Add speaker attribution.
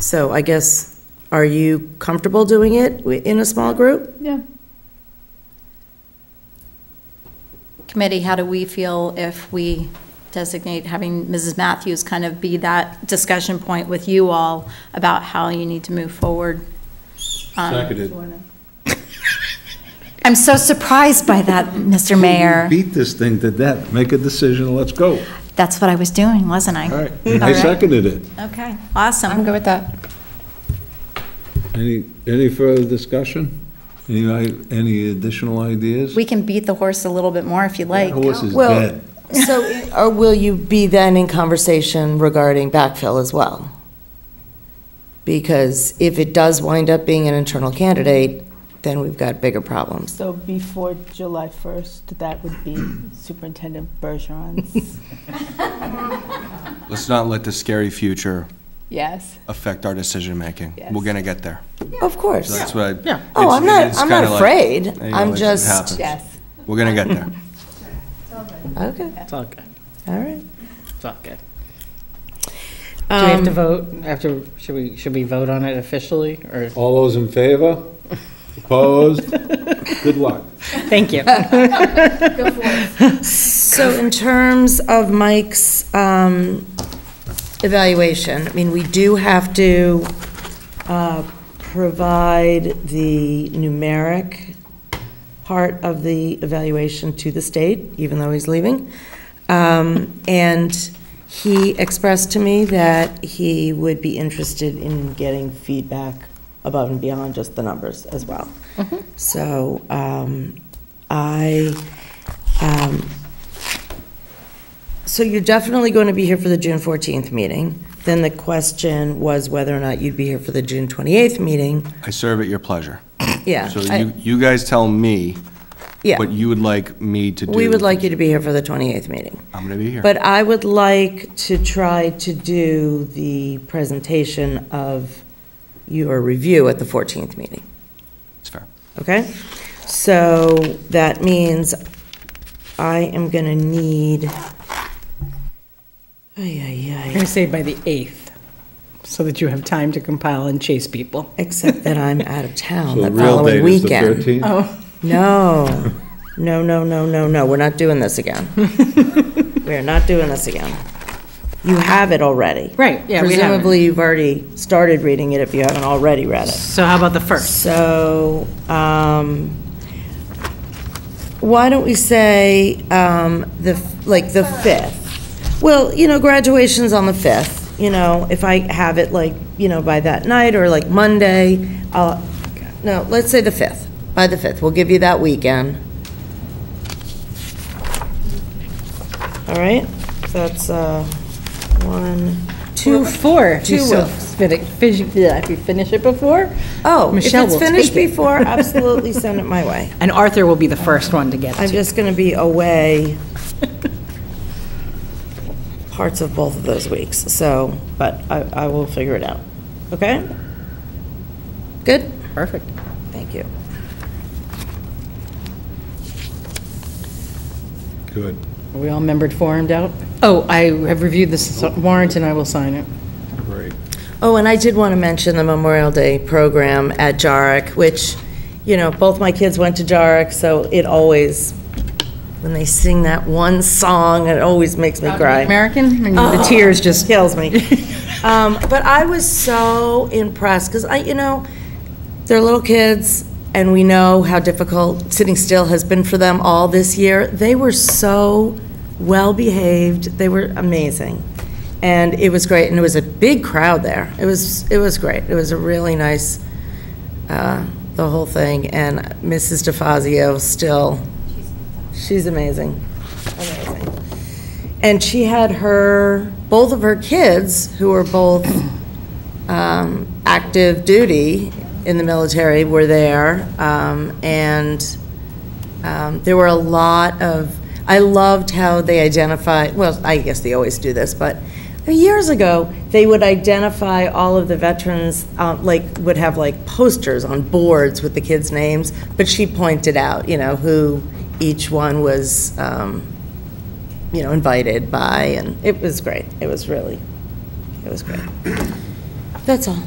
Speaker 1: So I guess, are you comfortable doing it wi- in a small group?
Speaker 2: Yeah.
Speaker 3: Committee, how do we feel if we designate having Mrs. Matthews kind of be that discussion point with you all about how you need to move forward? Um,
Speaker 4: Seconded.
Speaker 3: I'm so surprised by that, Mr. Mayor.
Speaker 4: Beat this thing to death, make a decision, let's go.
Speaker 3: That's what I was doing, wasn't I?
Speaker 4: All right, I seconded it.
Speaker 3: Okay, awesome.
Speaker 2: good with that.
Speaker 4: Any, any further discussion? Any, i- any additional ideas?
Speaker 3: We can beat the horse a little bit more if you
Speaker 4: That
Speaker 3: like.
Speaker 4: Horse is
Speaker 1: Well-
Speaker 4: dead.
Speaker 1: So, i- or will you be then in conversation regarding backfill as well? Because if it does wind up being an internal candidate, then we've got bigger problems.
Speaker 5: So before July 1st, that would be Superintendent Bergeron's,
Speaker 6: Let's not let the scary future
Speaker 5: yes.
Speaker 6: affect our decision-making. We're going to get there.
Speaker 1: Of course.
Speaker 6: So that's what I... it's-
Speaker 1: Oh, I'm not,
Speaker 6: it's
Speaker 1: I'm not
Speaker 6: kinda like,
Speaker 1: afraid.
Speaker 6: you know,
Speaker 1: I'm
Speaker 6: it's- it
Speaker 1: just,
Speaker 6: happens. We're going to get there.
Speaker 1: okay,
Speaker 7: It's all good,
Speaker 1: all right.
Speaker 7: it's all good. Do we have to vote after, should we, should we vote on it officially, or,
Speaker 4: All those in favor? Opposed? Good luck.
Speaker 7: thank you.
Speaker 1: So in terms of Mike's um, evaluation, I mean, we do have to uh, provide the numeric part of the evaluation to the state, even though he's leaving. Um, And he expressed to me that he would be interested in getting feedback above and beyond just the numbers as well. So um, I, um, so you're definitely going to be here for the June 14th meeting. Then the question was whether or not you'd be here for the June 28th meeting.
Speaker 6: I serve at your pleasure.
Speaker 1: Yeah.
Speaker 6: So
Speaker 1: I-
Speaker 6: you, you guys tell me
Speaker 1: Yeah.
Speaker 6: what you would like me to do.
Speaker 1: We would like you to be here for the 28th meeting.
Speaker 6: I'm going to be here.
Speaker 1: But I would like to try to do the presentation of your review at the 14th meeting.
Speaker 6: It's fair.
Speaker 1: Okay? So that means I am going to need, ay, ay, ay.
Speaker 7: I'm gonna say by the 8th, so that you have time to compile and chase people.
Speaker 1: Except that I'm out of town
Speaker 4: So
Speaker 1: the
Speaker 4: the real
Speaker 1: following
Speaker 4: date is the
Speaker 1: weekend.
Speaker 4: 13th?
Speaker 1: No, no, no, no, no, no, we're not doing this again. We're not doing this again. You have it already.
Speaker 7: Right, yeah, we have it.
Speaker 1: Presumably, you've already started reading it if you haven't already read it.
Speaker 7: So how about the 1st?
Speaker 1: So, um, why don't we say, um, the, f- like, the 5th? Well, you know, graduation's on the 5th, you know, if I have it like, you know, by that night, or like Monday, I'll, no, let's say the 5th, by the 5th, we'll give you that weekend. All right, that's, uh, one,
Speaker 2: Two,
Speaker 1: two,
Speaker 2: four, if you
Speaker 1: two
Speaker 2: still
Speaker 1: weeks.
Speaker 2: fit it- finish it- yeah, if you finish it before.
Speaker 1: Oh, if
Speaker 7: Michelle
Speaker 1: it's
Speaker 7: will take
Speaker 1: finished
Speaker 7: it.
Speaker 1: before, absolutely send it my way.
Speaker 7: And Arthur will be the first one to get
Speaker 1: I'm
Speaker 7: it.
Speaker 1: just going to be away parts of both of those weeks, so, but I, I will figure it out. Okay? Good?
Speaker 7: Perfect.
Speaker 1: Thank you.
Speaker 4: Good.
Speaker 7: Are we all membered formed out? Oh, I have reviewed this warrant and I will sign it.
Speaker 4: Great.
Speaker 1: Oh, and I did want to mention the Memorial Day program at Jarrick, which, you know, both my kids went to Jarrick, so it always, when they sing that one song, it always makes me cry.
Speaker 7: American, and the tears just,
Speaker 1: kills me. um, but I was so impressed because I, you know, they're little kids, and we know how difficult sitting still has been for them all this year. They were so well behaved. They were amazing, and it was great. And it was a big crowd there. It was it was great. It was a really nice uh, the whole thing. And Mrs. DeFazio still, she's amazing, amazing. And she had her, both of her kids, who were both um, active duty in the military, were there. Um, And um, there were a lot of, I loved how they identified, well, I guess they always do this, but years ago, they would identify all of the veterans, uh, like, would have like posters on boards with the kids' names, but she pointed out, you know, who each one was, um, you know, invited by, and it was great. It was really, it was great. That's all.